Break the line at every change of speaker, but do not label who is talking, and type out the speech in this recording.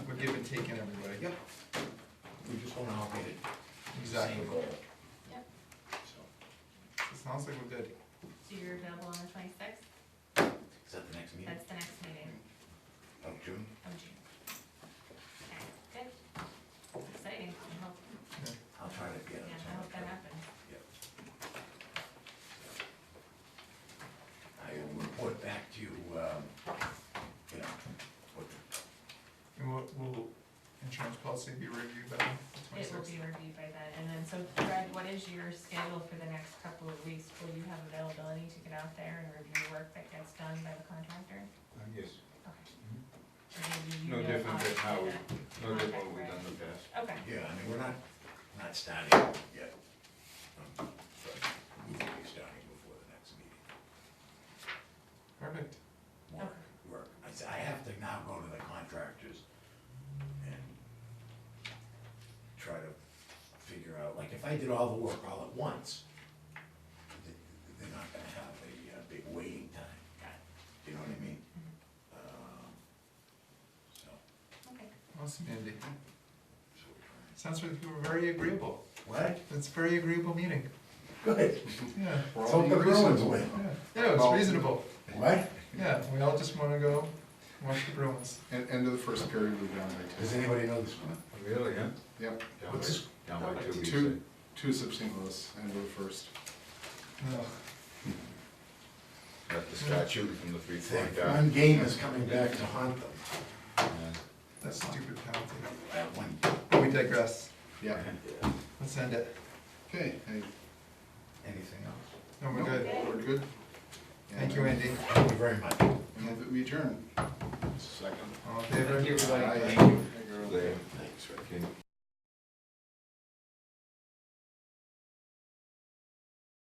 give and take in everybody.
Yep. We just wanna operate it.
Exactly.
Same goal.
Yep.
So,
It sounds like we're good.
So you're available on the twenty-sixth?
is that the next meeting?
That's the next meeting
Of Oh, June?
of June. Okay, good. Exciting. I hope,
I'll try to get
yeah,
it.
I hope that happens.
I will report back to you, um, you know, what,
And will, will insurance policy be reviewed by the
It will
twenty-sixth?
be reviewed by then. And then, so Fred, what is your schedule for the next couple of weeks? Will you have availability to get out there and review work that gets done by the contractor?
Uh, Yes,
Okay. Or do you
Mm-hmm. No
know
different
to
than how
do
we-
that?
no different than we've done in the past.
Okay,
yeah, I mean, we're not, not starting yet. Um, But we will be starting before the next meeting.
Perfect.
Work, work. I s- I have to now go to the contractors and try to figure out, like, if I did all the work all at once, th- they're not gonna have a uh, big waiting time. Do you know what I mean? Um, So,
okay.
Awesome, Andy.
so we're trying.
Sounds like you were very agreeable.
What?
It's a very agreeable meeting.
Good.
Yeah.
Let's hope the Bruins win.
Yeah, yeah, it's
Well-
reasonable.
What?
Yeah, we all just wanna go watch the Bruins.
And end of the first period, we've down by
Does
two.
anybody know this one?
Really, huh? Yep.
What's this?
Down by two, we say.
Two, two substantialists, end of the first.
No.
Let the start shooting from the free throw
That
line.
One game is coming back to haunt them.
Yeah.
That's stupid penalty.
That one.
We digress.
Yeah.
Let's end it.
Okay, hey,
Anything else?
No, we're
nope,
good.
we're good.
Thank you, Andy.
Thank you very much.
And move that we adjourn. Second.
All in favor?
Aye.
There.
Thanks, Rick.
Okay.